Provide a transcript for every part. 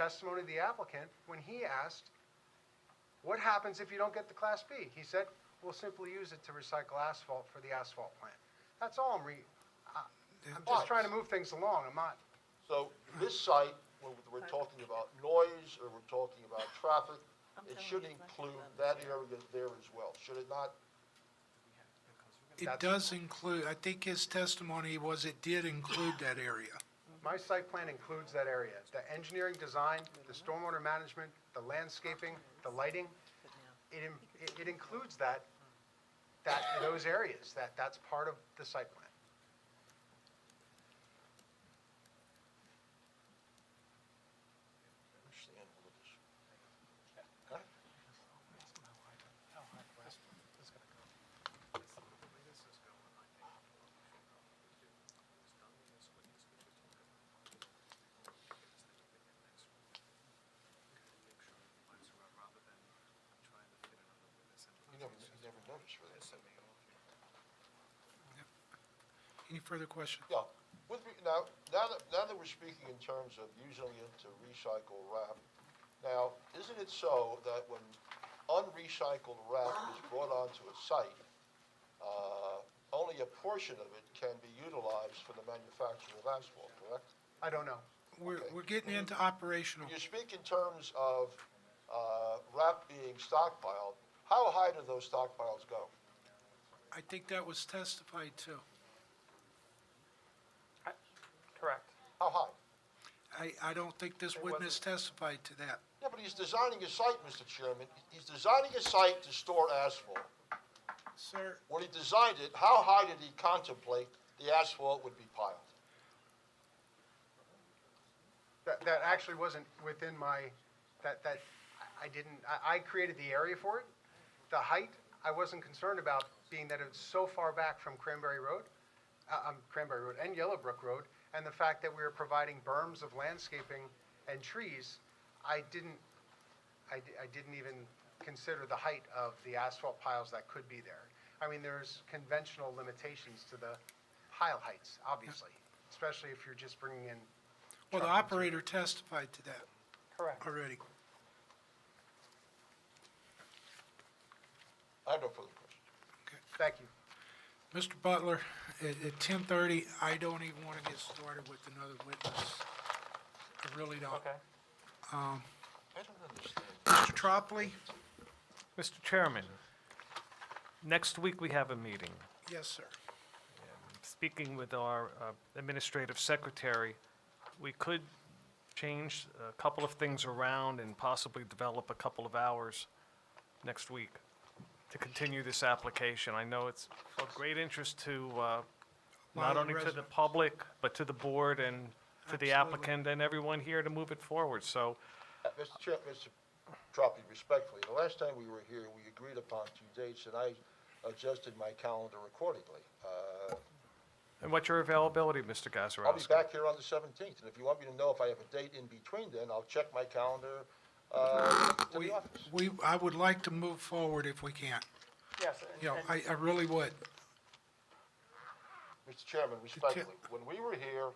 testimony of the applicant when he asked, what happens if you don't get the Class B? He said, we'll simply use it to recycle asphalt for the asphalt plant. That's all I'm re, I- I'm just trying to move things along, I'm not, So this site, when we're talking about noise or we're talking about traffic, it should include that area there as well, should it not? It That's- does include, I think his testimony was it did include that area. my site plan includes that area. The engineering design, the stormwater management, the landscaping, the lighting, it, im- it- it includes that, that, those areas, that, that's part of the site plan. You never, you never noticed really. Any further questions? Yeah, with, re- now, now that, now that we're speaking in terms of using it to recycle rap, now, isn't it so that when unrecycled rap is brought onto a site, uh, only a portion of it can be utilized for the manufacture of asphalt, correct? I don't know. We're, we're getting into operational. You speak in terms of uh, rap being stockpiled. How high do those stockpiles go? I think that was testified to. Correct. How high? I, I don't think this witness testified to that. Yeah, but he's designing a site, Mr. Chairman. He's designing a site to store asphalt. Sir, When he designed it, how high did he contemplate the asphalt would be piled? That, that actually wasn't within my, that, that, I- I didn't, I, I created the area for it. The height, I wasn't concerned about, being that it's so far back from Cranberry Road, uh, um, Cranberry Road and Yellowbrook Road, and the fact that we were providing berms of landscaping and trees, I didn't, I, di- I didn't even consider the height of the asphalt piles that could be there. I mean, there's conventional limitations to the pile heights, obviously, especially if you're just bringing in well, the operator testified to that Correct. already. I have no further questions. Thank you. Mr. Butler, at, at ten thirty, I don't even want to get started with another witness. I really don't. Okay. I don't understand. Mr. Tropley? Mr. Chairman, next week we have a meeting. Yes, sir. Speaking with our uh, administrative secretary, we could change a couple of things around and possibly develop a couple of hours next week to continue this application. I know it's of great interest to, uh, Lot not of only to the residents. public, but to the board and to Absolutely. the applicant and everyone here to move it forward. So Uh, Mr. Chair, Mr. Troppi, respectfully, the last time we were here, we agreed upon two dates, and I adjusted my calendar accordingly. Uh, And what's your availability, Mr. I'll be Gazarovski? back here on the 17th, and if you want me to know if I have a date in between then, I'll check my calendar uh, to We, the office. we, I would like to move forward if we can. Yes, You know, and- and I, I really would. Mr. Chairman, respectfully, when we were here,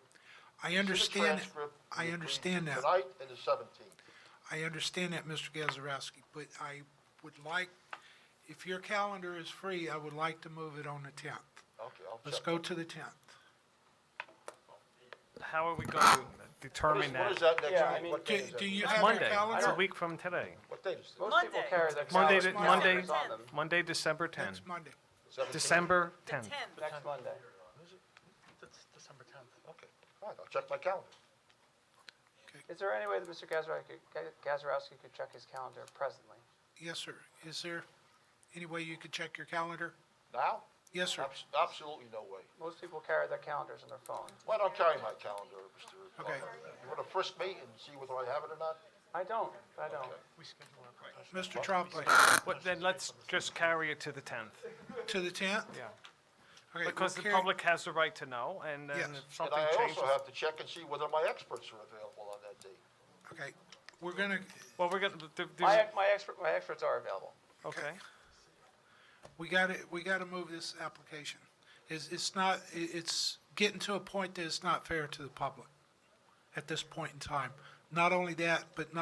I see the understand, transcript, we I agreed understand that. Tonight and the 17th. I understand that, Mr. Gazarovski, but I would like, if your calendar is free, I would like to move it on the 10th. Okay, I'll check. Let's go to the 10th. How are we going to What determine is- What is that? that Yeah, I next week? mean- What day Do is that? do you It's have your Monday. It's a calendar? week from today. What date is Monday. this? Most people people carry carry their calendars. Monday, to- Monday. Monday, It's on them. Monday, December 10th. It's Monday. December The 10th. next Monday. Okay, all right, I'll check my calendar. Is there any way that Mr. Gazarovski Gazarovski could check his calendar presently? Yes, sir. Is there any way you could check your calendar? Now? Yes, sir. Abs- Absolutely no way. Most people carry their calendars in their phone. Why don't carry my calendar, Mr. Okay. Butler? You want to frisk me and see whether I have it or not? I don't, I don't. Mr. Trombley, What- Then let's just carry it to the 10th. to the 10th? Yeah. Okay, we'll Because the carry- public has the right to know, and then Yes. if And something I changes. also have to check and see whether my experts are available on that date. Okay, we're gonna, Well, we're going to, My, my expert, my experts are available. okay. we gotta, we gotta move this application. It's, it's not, i- it's getting to a point that it's not fair to the public at this point in time. Not only that, but not